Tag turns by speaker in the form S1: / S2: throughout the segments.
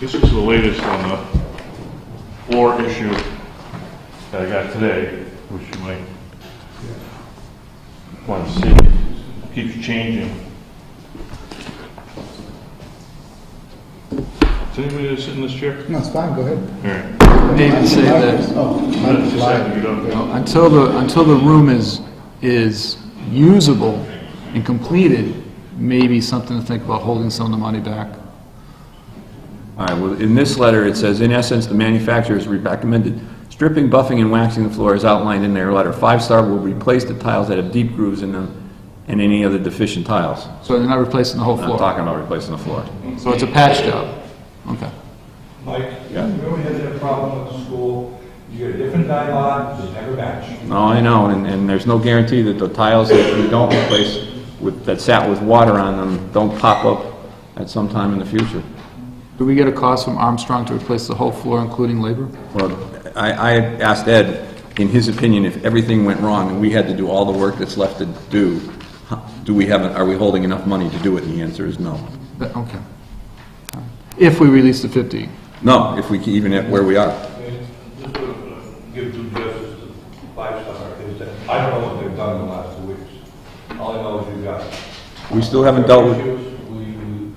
S1: This is the latest on the floor issue that I got today, which you might want to see. Keeps changing. Is anybody gonna sit in this chair?
S2: No, it's fine, go ahead.
S1: All right.
S3: David said that
S1: I
S2: Oh, I'm
S1: just have to
S2: flying.
S1: get up.
S3: until the, until the room is, is usable and completed, maybe something to think about holding some of the money back.
S4: All right, well, in this letter, it says, "In essence, the manufacturers recommended stripping, buffing, and waxing the floor as outlined in their letter. Five Star will replace the tiles that have deep grooves in them and any other deficient tiles."
S3: So they're not replacing the whole
S4: I'm not
S3: floor.
S4: talking about replacing the floor.
S3: So it's a patch job. Okay.
S5: Mike, remember we had that problem at the school, you get a different dye lot, just never match.
S4: No, I know, and, and there's no guarantee that the tiles that we don't replace with, that sat with water on them don't pop up at some time in the future.
S3: Do we get a cost from Armstrong to replace the whole floor, including labor?
S4: Well, I, I asked Ed, in his opinion, if everything went wrong and we had to do all the work that's left to do, how- do we have, are we holding enough money to do it? And the answer is no.
S3: That- Okay. If we release the 50.
S4: No, if we, can- even at where we are.
S5: And just to give due justice to Five Star, is that, I don't know what they've done in the last two weeks. All I know is you've got.
S4: We still haven't dealt with,
S5: Issues, we, we-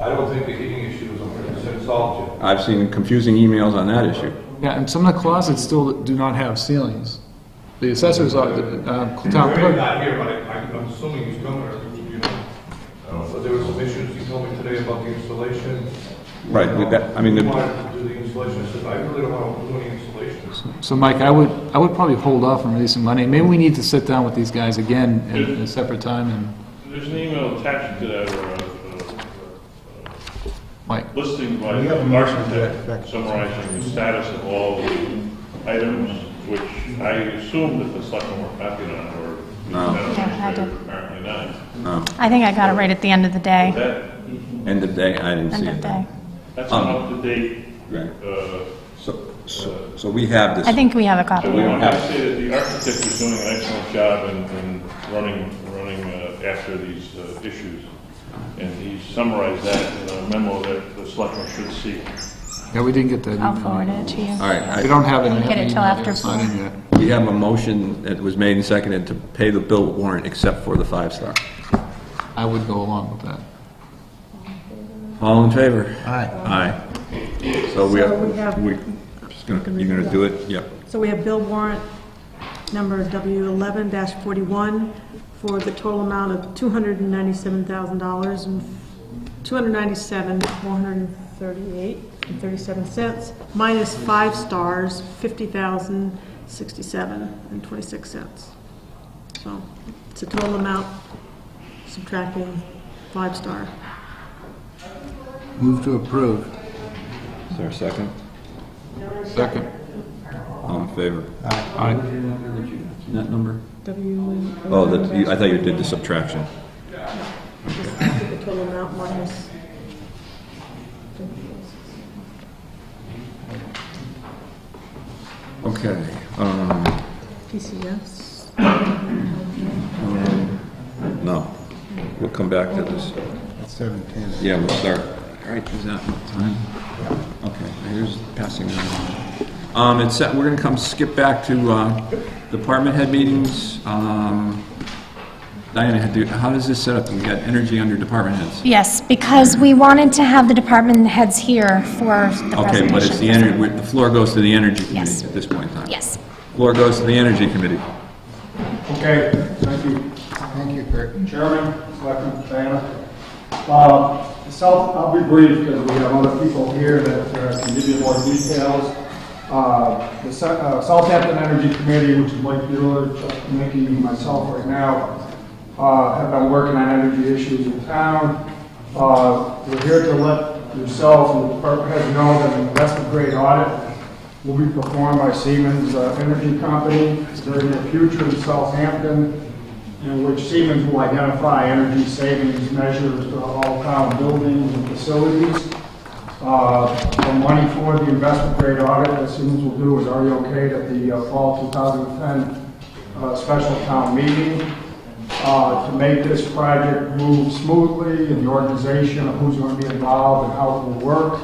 S5: I don't think the heating issue is a hundred percent solved yet.
S4: I've seen confusing emails on that issue.
S3: Yeah, and some of the closets still do not have ceilings. The assessors, are- the, uh, town
S5: Barry's
S3: clerk,
S5: not here, but I- I'm I'm assuming he's coming, or, you know. Uh, But there were some issues, he told me today about the installation.
S4: Right, with that- I mean, the-
S5: He wanted to do the installation, I said, I really don't want to do any installation.
S3: so Mike, I would, I would probably hold off on releasing money. Maybe we need to sit down with these guys again at a separate time and,
S1: There's an email attached to that, or uh, uh,
S3: Mike,
S1: listing by
S2: We have a
S1: the
S2: motion back-
S1: architect
S2: back.
S1: summarizing the status of all the items, which I assume that the selectmen were copied on, or the
S4: No.
S1: town
S6: Yeah, I did.
S1: administrator, apparently not.
S4: No,
S6: I think I got it right at the end of the day,
S1: That,
S4: uh, end of day, I didn't see
S6: end of
S4: it.
S6: day.
S1: that's an
S4: Um,
S1: up-to-date,
S4: Right,
S1: uh,
S4: so, so so we have
S6: I
S4: this,
S6: think we have a
S1: so we
S6: copy.
S1: want
S4: have
S1: to say that the architect is doing an excellent job in, in running, running uh, after these uh, issues. And he summarized that in a memo that the selectmen should see.
S3: yeah, we didn't get that
S6: I'll
S3: email.
S6: forward it to you.
S4: all right, I-
S3: We don't have it. in
S6: Get it till
S3: email.
S6: after
S3: It's not in yet.
S4: We have a motion that was made and seconded to pay the bill warrant except for the five-star.
S3: I would go along with that.
S4: All in favor?
S2: Aye.
S4: Aye. So we
S7: So we
S4: are,
S7: have-
S4: we, just gonna- you're going to do it? Yep.
S7: So we have bill warrant number W11-41 for the total amount of $297,000 and $297,438.37, minus five stars, $50,067.26. So it's a total amount subtracting five star.
S2: Move to approve.
S4: Is there a second?
S3: Second.
S4: All in favor?
S3: All right,
S4: That number?
S7: W.
S4: Oh, that, you- I thought you did the subtraction.
S7: The total amount minus
S4: Okay. um,
S7: PCS.
S4: No. We'll come back to this.
S2: It's seven ten.
S4: Yeah, we'll start. All right, is that enough time? Okay, here's passing that on. Um, it's, we're gonna come skip back to, uh, department head meetings. Um, Diana, had to- how does this set up? We got energy under department heads.
S6: Yes, because we wanted to have the department heads here for the
S4: Okay, but it's the
S6: presentation.
S4: energy, the floor goes to the energy
S6: Yes.
S4: committee at this point in time.
S6: Yes.
S4: Floor goes to the energy committee.
S8: Okay, thank you.
S2: Thank you, Kurt.
S8: Chairman, Selectman, Diana. Uh, So I'll be brief because we have other people here that uh, can give you more details. Uh, The Sa- uh, Southampton Energy Committee, which is Mike Bueller, Chuck Mickey, and myself right now, uh, have been working on energy issues in town. Uh, We're here to let yourself and the department heads know that an investment grade audit will be performed by Siemens uh, Energy Company during the future in Southampton in which Siemens will identify energy savings measures to all town buildings and facilities. Uh, The money for the investment grade audit that Siemens will do is already okayed at the uh, fall 2010 uh, special town meeting. Uh, to make this project move smoothly and the organization of who's going to be involved and how it will work.